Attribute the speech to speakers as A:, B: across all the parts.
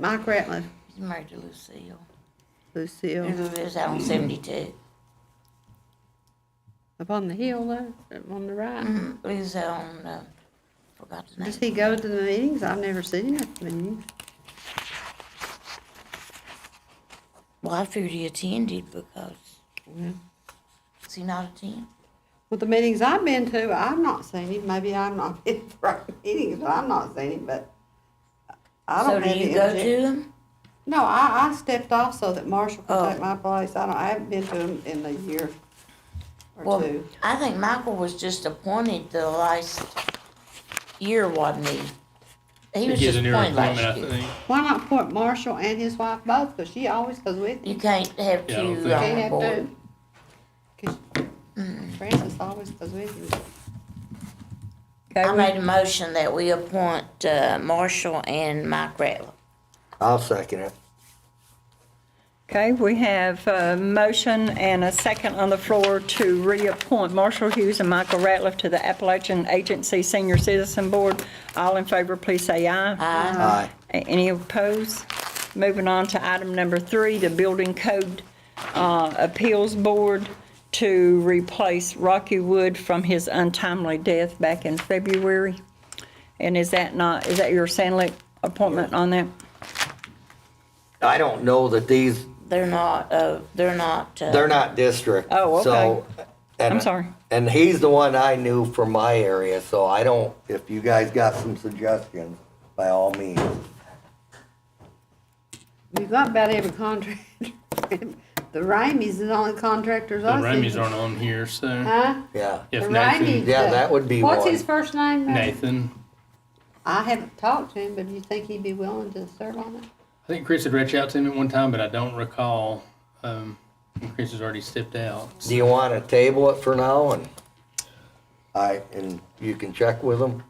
A: Mike Ratliff,
B: He's married to Lucille.
A: Lucille,
B: Who lives out on 72.
A: up on the hill there, up on the right.
B: Mm, Lives out on, uh, forgot the name.
A: Does he go to the meetings? I've never seen him at the meetings.
B: Well, I figured he attended because,
A: Well,
B: does he not attend?
A: the meetings I've been to, I've not seen him. Maybe I've not been to right meetings, but I've not seen him, but I
B: So
A: don't
B: do
A: have
B: you
A: any
B: go
A: objection.
B: to them?
A: No, I, I stepped off so that Marshall could
B: Oh.
A: take my place. I don't, I haven't been to him in a year or
B: Well,
A: two.
B: I think Michael was just appointed the last year, wasn't he? He was
C: He's
B: just
C: a new
B: appointed
C: appointment, I
B: last year.
C: think.
A: Why not appoint Marshall and his wife both? Because she always goes with
B: You
A: him.
B: can't have
C: Yeah, I don't
B: two
C: think-
B: on
A: Can't
B: the
A: have
B: board.
A: two. 'Cause Francis always goes with him.
B: I made a motion that we appoint, uh, Marshall and Mike Ratliff.
D: I'll second it.
E: Okay, we have a motion and a second on the floor to reappoint Marshall Hughes and Michael Ratliff to the Appalachian Agency Senior Citizen Board. All in favor, please say aye. Aye.
D: Aye.
E: Any opposed? Moving on to item number three, the Building Code uh, Appeals Board to replace Rocky Wood from his untimely death back in February. And is that not, is that your Sandlick appointment on that?
D: I don't know that these,
B: They're not, uh, they're not, uh,
D: they're not district.
E: Oh,
D: so- and-
E: I'm sorry.
D: And he's the one I knew from my area, so I don't, if you guys got some suggestions, by all means.
A: We've got about every contractor. The Raimis is the only contractors
C: The
A: I see.
C: Rammies aren't on here, so
A: Huh?
D: Yeah.
A: The
C: if
A: Raimis.
C: Nathan,
D: Yeah, that would be
A: What's
D: one.
A: his first name? Ray?
C: Nathan,
A: I haven't talked to him, but do you think he'd be willing to serve on it?
C: I think Chris had reached out to him at one time, but I don't recall. Um, and Chris has already stepped out.
D: Do you want to table it for now and I, and you can check with him?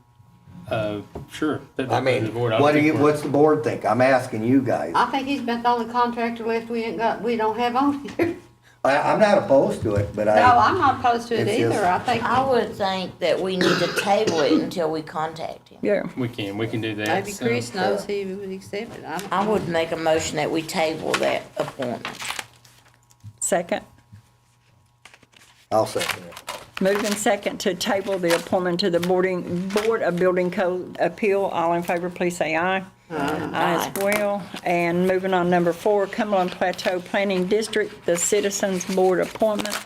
C: Uh, sure. that'd be
D: I
C: the
D: mean,
C: board. I
D: what do
C: think
D: you,
C: we're-
D: what's the board think? I'm asking you guys.
A: I think he's been the only contractor left we ain't got, we don't have on here.
D: I, I'm not opposed to it, but
A: No,
D: I,
A: I'm not opposed to it
D: It's just-
A: either. I think
B: I would think that we need to table it until we contact him.
E: Yeah.
C: We can, we can do that.
A: maybe
C: so-
A: Chris knows he would accept it. I don't
B: I
A: know.
B: would make a motion that we table that appointment.
E: Second.
D: I'll second it.
E: Moved and second to table the appointment to the boarding, Board of Building Code Appeal. All in favor, please say aye. Aye as well. And moving on, number four, Cumberland Plateau Planning District, the Citizens Board appointment.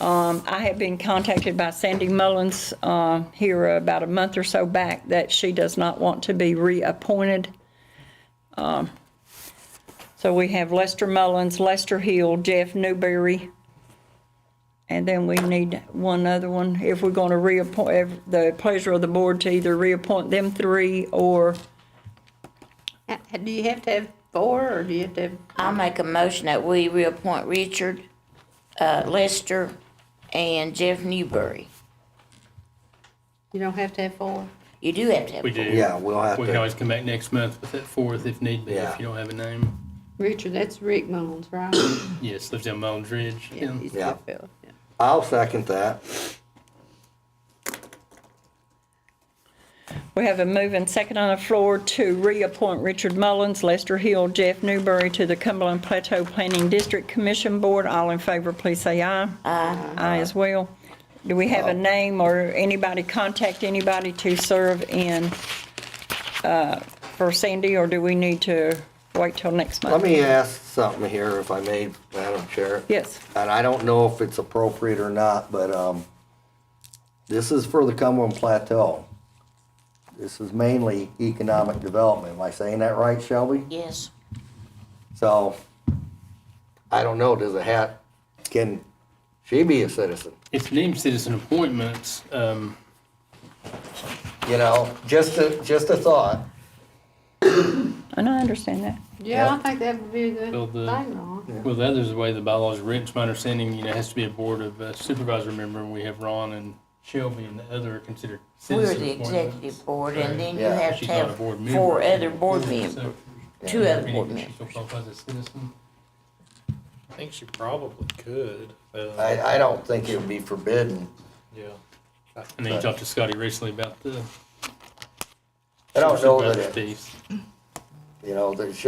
E: Um, I have been contacted by Sandy Mullins, uh, here about a month or so back, that she does not want to be reappointed. Um, So we have Lester Mullins, Lester Hill, Jeff Newberry, and then we need one other one, if we're gonna reappoint, if the pleasure of the board to either reappoint them three or,
A: Ha- Do you have to have four, or do you have to have,
B: I make a motion that we reappoint Richard, uh, Lester, and Jeff Newberry.
A: you don't have to have four?
B: You do have to have.
C: We do.
D: Yeah, we'll have
C: We can
D: to,
C: always come back next month with that fourth if need be,
D: Yeah.
C: if you don't have a name.
A: Richard, that's Rick Mullins, right?
C: Yes, lives down Mounds Ridge.
A: Yeah,
C: Yeah.
A: he's a
D: Yeah.
A: good fella, yeah.
D: I'll second that.
E: we have a move and second on the floor to reappoint Richard Mullins, Lester Hill, Jeff Newberry to the Cumberland Plateau Planning District Commission Board. All in favor, please say aye. Aye. Aye as well. Do we have a name or anybody, contact anybody to serve in, uh, for Sandy, or do we need to wait till next month?
D: Let me ask something here, if I may, Madam Chair.
E: Yes.
D: And I don't know if it's appropriate or not, but, um, this is for the Cumberland Plateau. This is mainly economic development. Am I saying that right, Shelby?
B: Yes.
D: So, I don't know, does it have, can she be a citizen?
C: It's named citizen appointments. Um,
D: You know, just a, just a thought.
E: And I understand that.
A: Yeah, I
D: Yeah.
A: think that would be a good
C: Build the-
A: thing, Ron.
C: Well, the other's the way the bylaws are written, it's my understanding, you know, it has to be a board of uh, supervisor member, and we have Ron and Shelby and the other are considered
B: We're
C: citizen
B: the
C: appointments.
B: executive board, and then you
D: Yeah.
B: have to
C: She's not a
B: have
C: board member.
B: four other board members,
C: So,
B: two other board
C: She
B: members.
C: still qualifies as a citizen.
F: I think she probably could. uh,
D: I, I don't think it would be forbidden.
F: Yeah.
C: And then you talked to Scotty recently about the
D: I don't know that
C: supervisor
D: it,
C: piece.
D: You know, there should